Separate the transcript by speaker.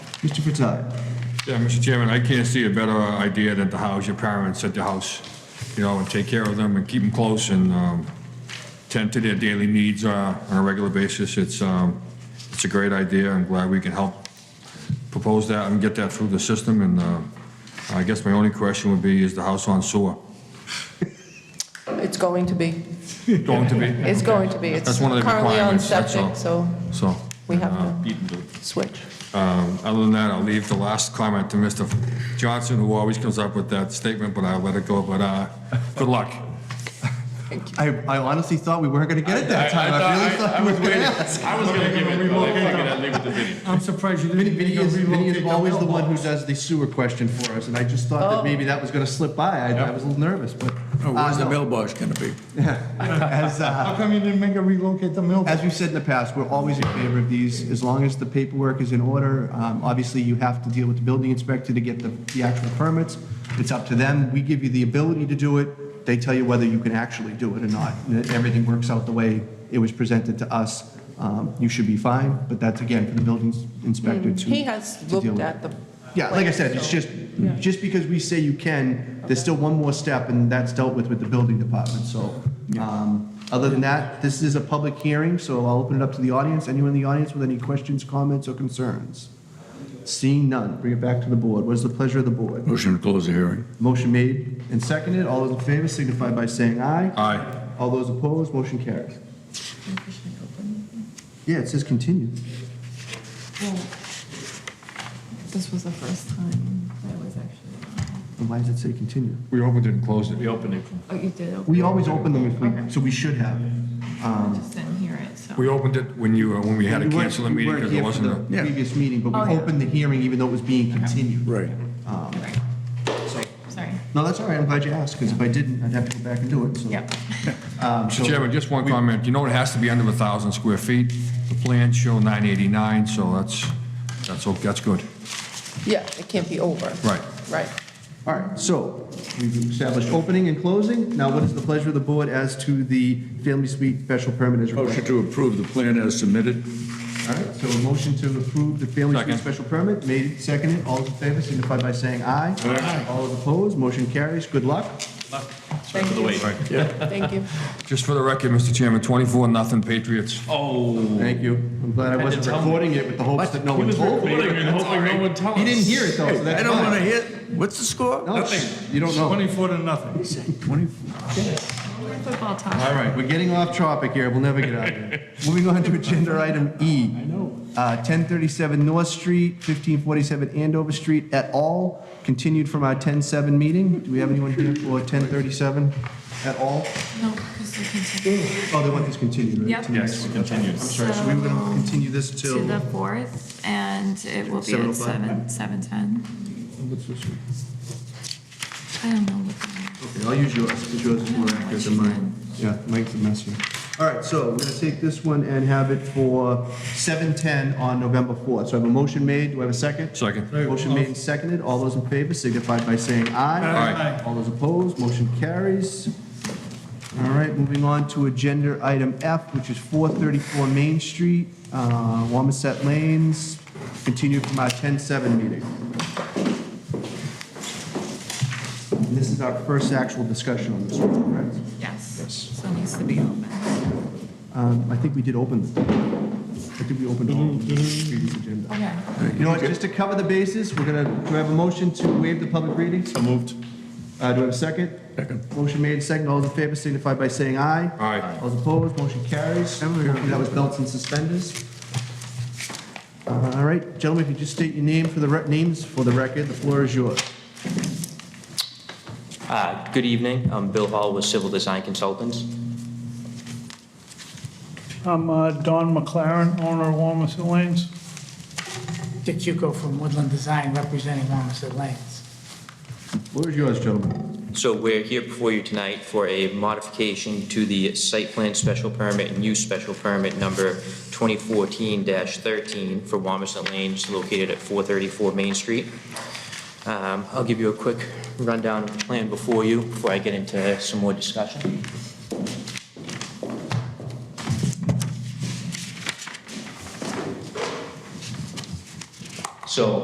Speaker 1: Mr. Fratelli.
Speaker 2: Yeah, Mr. Chairman, I can't see a better idea than to house your parents at the house, you know, and take care of them and keep them close and um, tend to their daily needs uh, on a regular basis. It's, um, it's a great idea. I'm glad we can help propose that and get that through the system. And uh, I guess my only question would be, is the house on sewer?
Speaker 3: It's going to be.
Speaker 2: Going to be?
Speaker 3: It's going to be. It's
Speaker 2: That's one of the
Speaker 3: currently on
Speaker 2: requirements, that's
Speaker 3: septic,
Speaker 2: all.
Speaker 3: so
Speaker 2: So, uh,
Speaker 3: we have to switch.
Speaker 2: um, other than that, I'll leave the last comment to Mr. Johnson, who always comes up with that statement, but I'll let it go. But uh, good luck.
Speaker 1: I, I honestly thought we weren't going to get it that time. I, really thought we were going to ask.
Speaker 4: I was gonna give it, but I figured I'd leave it to Vinnie.
Speaker 5: I'm surprised you didn't.
Speaker 1: Vinny Vinny
Speaker 5: think of
Speaker 1: is, Vinny is
Speaker 5: relocating
Speaker 1: always the
Speaker 5: Bill.
Speaker 1: one who does the sewer question for us, and I just thought that maybe that was going to slip by. I, I was a little nervous, but.
Speaker 6: Oh, Where's
Speaker 1: uh,
Speaker 6: the
Speaker 1: no.
Speaker 6: mailbox gonna be?
Speaker 1: As, uh,
Speaker 5: How come you didn't make a relocate the mill?
Speaker 1: as we've said in the past, we're always in favor of these, as long as the paperwork is in order. Um, Obviously, you have to deal with the building inspector to get the, the actual permits. It's up to them. We give you the ability to do it. They tell you whether you can actually do it or not. And if Everything works out the way it was presented to us. um, You should be fine, but that's again for the building inspector to.
Speaker 3: He has
Speaker 1: to deal
Speaker 3: looked
Speaker 1: with.
Speaker 3: at the.
Speaker 1: Yeah, like I
Speaker 3: plans,
Speaker 1: said, it's
Speaker 3: so-
Speaker 1: just, just because we say you can, there's still one more step, and that's dealt with with the building department, so. um, Other than that, this is a public hearing, so I'll open it up to the audience. Anyone in the audience with any questions, comments, or concerns? Seeing none, bring it back to the board. What is the pleasure of the board?
Speaker 6: Motion to close the hearing.
Speaker 1: Motion made and seconded. All those in favor signify by saying aye.
Speaker 2: Aye.
Speaker 1: All those opposed, motion carries. Yeah, it says continue.
Speaker 7: This was the first time I was actually,
Speaker 1: And Why does it say continue?
Speaker 2: We hope it didn't close it.
Speaker 4: We opened it.
Speaker 7: oh, you did, okay,
Speaker 1: We always open them if we, so we should have.
Speaker 7: I just didn't hear it, so.
Speaker 2: We opened it when you, uh, when we had to
Speaker 1: We weren't-
Speaker 2: cancel the meeting because
Speaker 1: We
Speaker 2: it
Speaker 1: weren't
Speaker 2: wasn't
Speaker 1: here
Speaker 2: a,
Speaker 1: for the previous meeting, but
Speaker 7: Oh,
Speaker 1: we
Speaker 7: yeah.
Speaker 1: opened the hearing even though it was being continued.
Speaker 6: Right.
Speaker 7: Right. Sorry,
Speaker 1: No, that's all right, I'm glad you asked, because if I didn't, I'd have to go back and do it, so.
Speaker 7: yeah.
Speaker 1: Um, so-
Speaker 2: Mr. Chairman, just one comment. You know, it has to be under a thousand square feet. The plans show nine eighty-nine, so that's, that's, o- that's good.
Speaker 3: Yeah, it can't be over.
Speaker 2: Right.
Speaker 3: Right.
Speaker 1: All right, so we've established opening and closing. Now, what is the pleasure of the board as to the family suite special permit as
Speaker 6: Motion
Speaker 1: requested?
Speaker 6: to approve the plan as submitted.
Speaker 1: All right, so a motion to approve the family suite
Speaker 2: Second.
Speaker 1: special permit, made, seconded, all those in favor signify by saying aye. Aye. All those opposed, motion carries, good luck.
Speaker 3: Thank
Speaker 4: for the
Speaker 3: you.
Speaker 4: wait.
Speaker 3: Thank you.
Speaker 2: Just for the record, Mr. Chairman, twenty-four, nothing Patriots.
Speaker 4: Oh.
Speaker 1: Thank you. I'm glad I wasn't
Speaker 4: tell me.
Speaker 1: recording it with the hopes that no one told me.
Speaker 4: hoping no one tells.
Speaker 1: He didn't hear it though, so that's
Speaker 6: I don't
Speaker 1: fine.
Speaker 6: wanna hear, what's the score?
Speaker 1: No,
Speaker 5: Nothing.
Speaker 1: You don't know.
Speaker 5: Twenty-four to nothing.
Speaker 7: Football talk.
Speaker 1: All right, we're getting off topic here. We'll never get out of here. Moving on to agenda item E. I know. Uh, 1037 North Street, 1547 Andover Street et al. Continued from our 107 meeting. Do we have anyone here for 1037 at all?
Speaker 7: No, this is continued.
Speaker 1: Oh, they want this continued, right?
Speaker 7: Yep.
Speaker 1: To the next one.
Speaker 4: Continue.
Speaker 1: I'm sorry, so we were going to continue this till,
Speaker 7: To the fourth, and it will be at
Speaker 1: 7:05?
Speaker 7: seven, seven ten. I don't know what the.
Speaker 1: okay, I'll use yours, because yours is more accurate than mine. Yeah, Mike's a mess here. All right, so we're going to take this one and have it for 7:10 on November 4th. So I have a motion made. Do I have a second?
Speaker 2: Second.
Speaker 1: Motion made and seconded. All those in favor signify by saying aye.
Speaker 2: Aye.
Speaker 1: All those opposed, motion carries. All right, moving on to agenda item F, which is 434 Main Street, uh, Wamisett Lanes, continued from our 10-7 meeting. And This is our first actual discussion on this one, correct?
Speaker 7: Yes, so it needs to be open.
Speaker 1: Um, I think we did open, I think we opened all of the previous agenda.
Speaker 7: Okay.
Speaker 1: You know what, just to cover the bases, we're gonna, do I have a motion to waive the public reading? So moved. Uh, do I have a second? Second. Motion made, second, all those in favor signify by saying aye.
Speaker 2: Aye.
Speaker 1: All those opposed, motion carries. Hopefully That was belts and suspenders. Uh, All right, gentlemen, if you just state your name for the, rec- names for the record, the floor is yours.
Speaker 8: Uh, Good evening. I'm Bill Hall with Civil Design Consultants.
Speaker 9: I'm uh, Don McLaren, owner of Wamasett Lanes.
Speaker 10: Dick Chuko from Woodland Design, representing Wamasett Lanes.
Speaker 1: Floor is yours, gentlemen.
Speaker 8: So we're here before you tonight for a modification to the site plan special permit and use special permit number 2014-13 for Wamisit Lanes located at 434 Main Street. Um, I'll give you a quick rundown of the plan before you, before I get into some more discussion. So